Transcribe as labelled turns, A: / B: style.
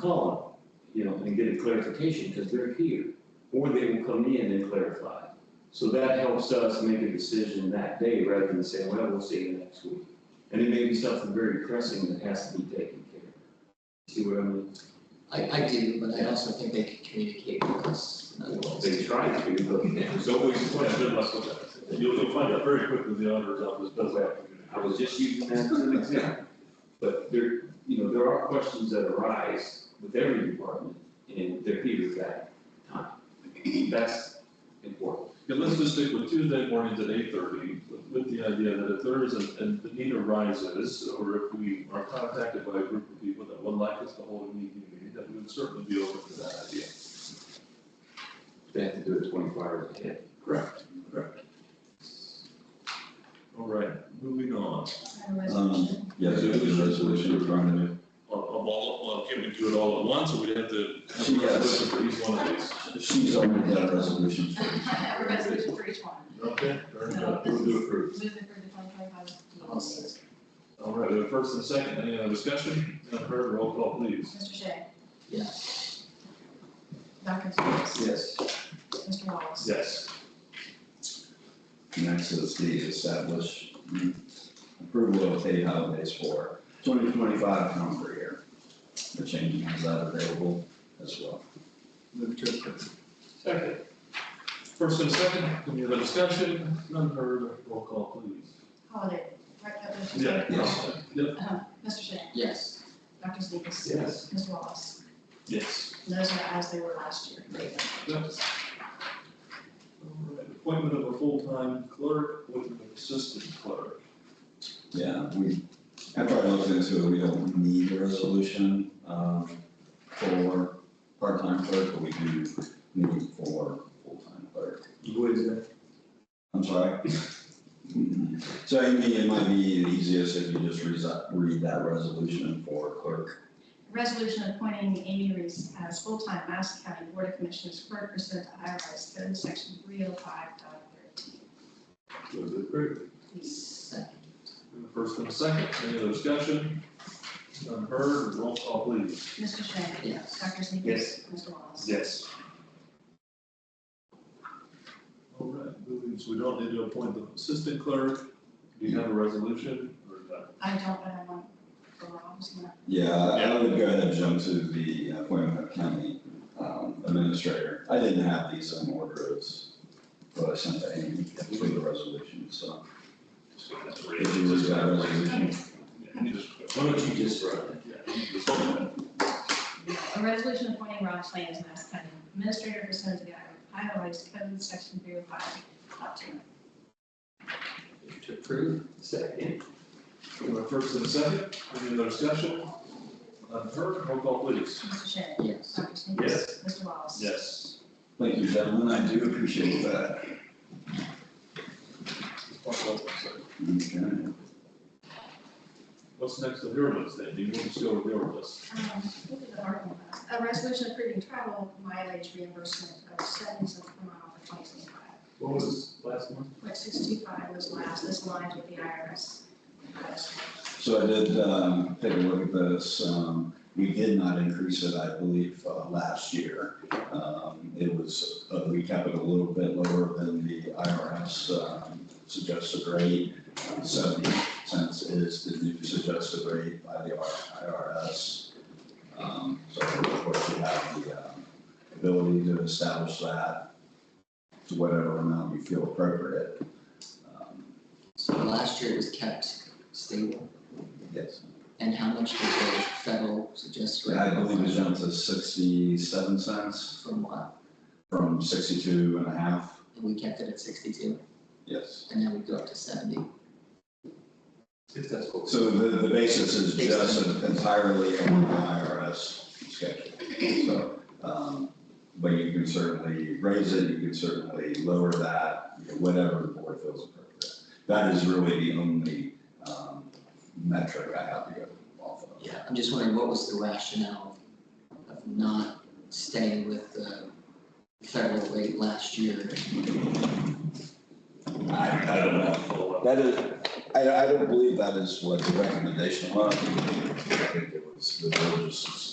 A: call them, you know, and get a clarification, because they're here. Or they will come in and clarify. So that helps us make a decision that day rather than saying, well, we'll see you next week. And it may be something very pressing that has to be taken care of. See what I mean?
B: I, I do, but I also think they can communicate with us in other ways.
A: They try to, but there's always question.
C: You'll, you'll find out very quickly the auditor's office does that.
A: I was just using that as an example. But there, you know, there are questions that arise with every department, and they're here at that time. That's important.
C: Yeah, let's just stick with Tuesday mornings at eight thirty, with the idea that if there is, a- and the need arises, or if we are contacted by a group of people that would like us to hold a meeting, that we would certainly be open to that idea.
A: They have to do it twenty-four hours ahead.
C: Correct, correct. All right, moving on.
D: Um, Yeah, so it's a resolution in front of you.
C: Of, of all, well, can we do it all at once, or we'd have to have a
D: Yes.
C: resolution for each one of these?
D: She's already got a resolution.
E: A resolution for each one.
C: Okay, very
E: No.
C: good.
A: Move to approve.
E: Move it for the twenty twenty-five.
B: I'll say-
C: All right, we have first and second, any other discussion? None heard, roll call please.
E: Mr. Shea.
B: Yes,
E: Dr. Seuss.
A: Yes.
E: Mr. Wallace.
C: Yes.
D: Next is the establish approval of paid holidays for twenty twenty-five calendar year. The change is that available as well.
C: Second. First and second, any other discussion? None heard, roll call please.
E: Holiday. Right, that was-
D: Yes.
C: Yep,
E: Mr. Shea.
B: yes,
E: Dr. Seuss.
A: Yes.
E: Mr. Wallace.
C: yes.
E: And Those are as they were last year.
C: Yep. All right, appointment of a full-time clerk with an assistant clerk.
D: Yeah, we, after I looked into it, we don't need a resolution, um, for part-time clerk, but we do need for full-time clerk.
A: You would, uh,
D: I'm sorry. So I mean, it might be the easiest if you just resi- read that resolution for clerk.
E: Resolution appointing Amy Reese as full-time Madison County Board of Commissioners clerk pursuant to IRS code section three oh five dot thirteen.
C: Move to approve.
B: second,
C: First and second, any other discussion? None heard, roll call please.
E: Mr. Shea.
B: yes.
E: Dr. Seuss.
A: Yes.
E: Mr. Wallace.
C: Yes. All right, moving, so we don't need to appoint the assistant clerk. Do you have a resolution or not?
E: I don't, but I want the Rob's gonna
D: Yeah, I would go ahead and jump to the appointment of county um, administrator. I didn't have these in order, it's what I sent to Amy for the resolution, so. If you read that resolution,
A: why don't you just run it?
E: A resolution appointing Rob Slane as Madison County Administrator pursuant to the Iowa Revised Code, Section 305, Top 2.
B: Move To approve,
A: Second.
C: We have a first and a second, any other discussion? None heard, roll call please.
E: Mr. Shea.
B: yes,
E: Dr. Sneakers.
C: Yes.
E: Mr. Wallace.
C: Yes.
D: thank you, gentlemen, I do appreciate that. Okay.
C: What's next on your list then? Do you want to go with your list?
E: Um, what did the hard one was? A resolution approving travel mileage reimbursement of 70 cents per mile for 2025.
C: What was last one?
E: Point 625 was last, this aligns with the IRS.
D: So I did um, take a look at this. Um, We did not increase it, I believe, uh, last year. Um, It was, uh, we kept it a little bit lower than the IRS um, suggested rate. Um, Seventy cents is the new suggested rate by the IRS. Um, So of course, you have the um, ability to establish that to whatever amount you feel appropriate. Um,
B: so last year it was kept stable,
D: Yes.
B: and how much was the federal suggested? rate?
D: I believe it jumped to sixty-seven cents
B: From what,
D: from sixty-two and a half.
B: and we kept it at sixty-two,
D: Yes.
B: and then we go up to seventy,
A: If that's what.
D: So the, the basis is just entirely on the IRS schedule. So, um, but you can certainly raise it, you can certainly lower that, you know, whatever the board feels appropriate. That is really the only, um, metric I have to go off of.
B: yeah, I'm just wondering, what was the rationale of not staying with the federal rate last year?
D: I, I don't know. That is, I, I don't believe that is what the recommendation was. I think it was the village's